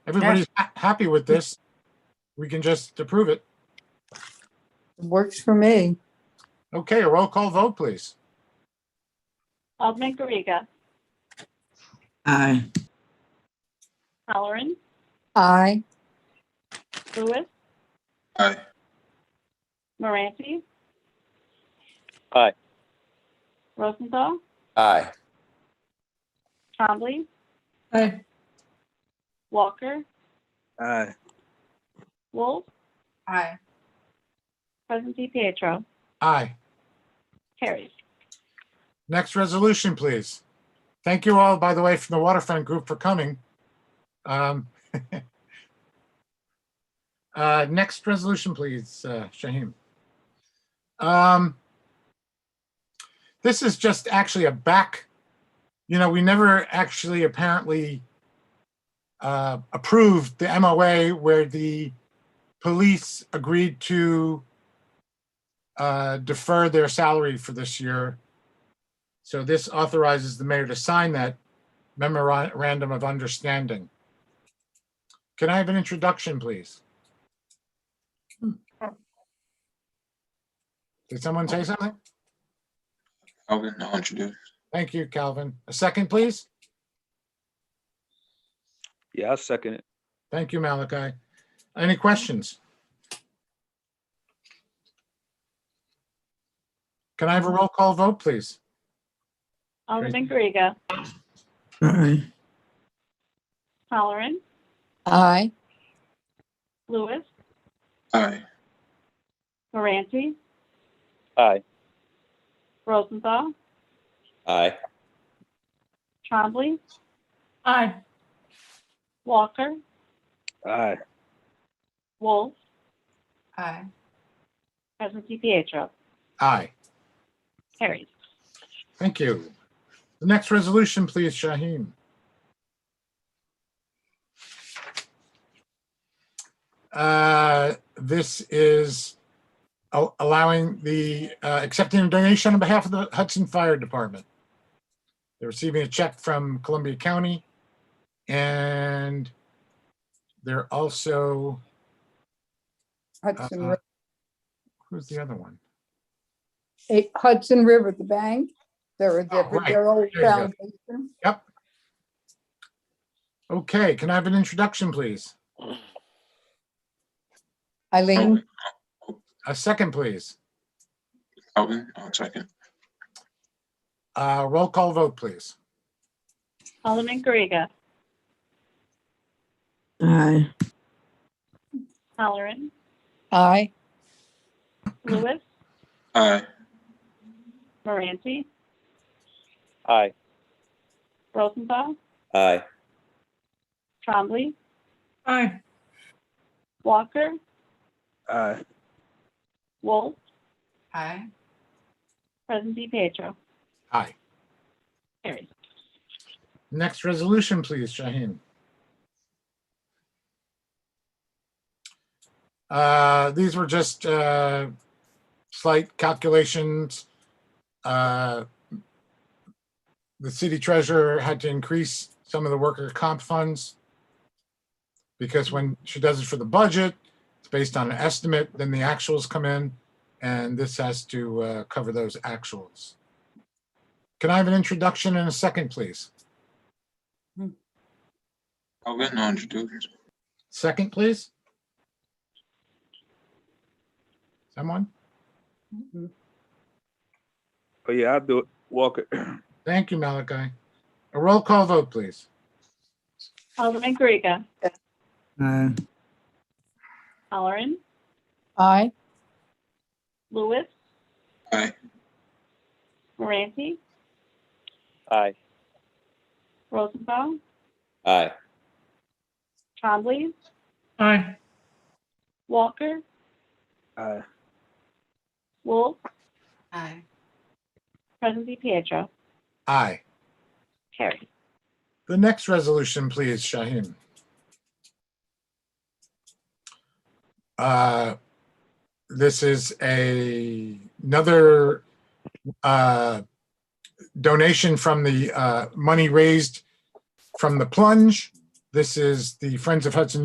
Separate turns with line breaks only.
everybody's ha- happy with this, we can just approve it.
Works for me.
Okay, a roll call vote, please.
Alderman Garriga.
Aye.
Halloran.
Aye.
Lewis.
Aye.
Moranti.
Aye.
Rosenthal.
Aye.
Trombley.
Aye.
Walker.
Aye.
Wolf.
Aye.
President Pietro.
Aye.
Carries.
Next resolution, please. Thank you all, by the way, from the waterfront group for coming. Um, uh, Next resolution, please, uh, Shaheem. Um, This is just actually a back, you know, we never actually apparently uh, approved the MOA where the police agreed to uh, defer their salary for this year. So this authorizes the mayor to sign that memorandum of understanding. Can I have an introduction, please? Did someone say something?
Calvin, I'll introduce.
Thank you, Calvin. A second, please?
Yeah, I'll second it.
Thank you, Malachi. Any questions? Can I have a roll call vote, please?
Alderman Garriga.
Aye.
Halloran.
Aye.
Lewis.
Aye.
Moranti.
Aye.
Rosenthal.
Aye.
Trombley.
Aye.
Walker.
Aye.
Wolf.
Aye.
President Pietro.
Aye.
Carries.
Thank you. The next resolution, please, Shaheen. Uh, This is al- allowing the, uh, accepting a donation on behalf of the Hudson Fire Department. They're receiving a check from Columbia County. And they're also,
Hudson,
Uh,
Ri-
who's the other one?
eh, Hudson River, the bank. They're a
Oh, right.
different, they're old
There you go.
foundation.
Okay, can I have an introduction, please?
Eileen,
A second, please.
Calvin, I'll second.
Uh, Roll call vote, please.
Alderman Garriga.
Aye.
Halloran.
aye.
Lewis.
Aye.
Moranti.
Aye.
Rosenthal.
Aye.
Trombley.
Aye.
Walker.
Aye.
Wolf.
Aye.
President Pietro.
Aye.
Carries.
Next resolution, please, Shaheen. Uh, These were just uh, slight calculations. Uh, The city treasurer had to increase some of the worker comp funds because when she does it for the budget, it's based on an estimate, then the actuals come in, and this has to uh, cover those actuals. Can I have an introduction and a second, please?
Calvin, I'll introduce.
Second, please. Someone?
Oh, yeah, I'll do it. Walker.
Thank you, Malachi. A roll call vote, please.
Alderman Garriga.
Aye.
Halloran.
Aye.
Lewis.
Aye.
Moranti.
Aye.
Rosenthal.
Aye.
Trombley.
Aye.
Walker.
Aye.
Wolf.
Aye.
President Pietro.
Aye.
Carries.
The next resolution, please, Shaheen. Uh, This is a, another uh, donation from the uh, money raised from the plunge This is the Friends of Hudson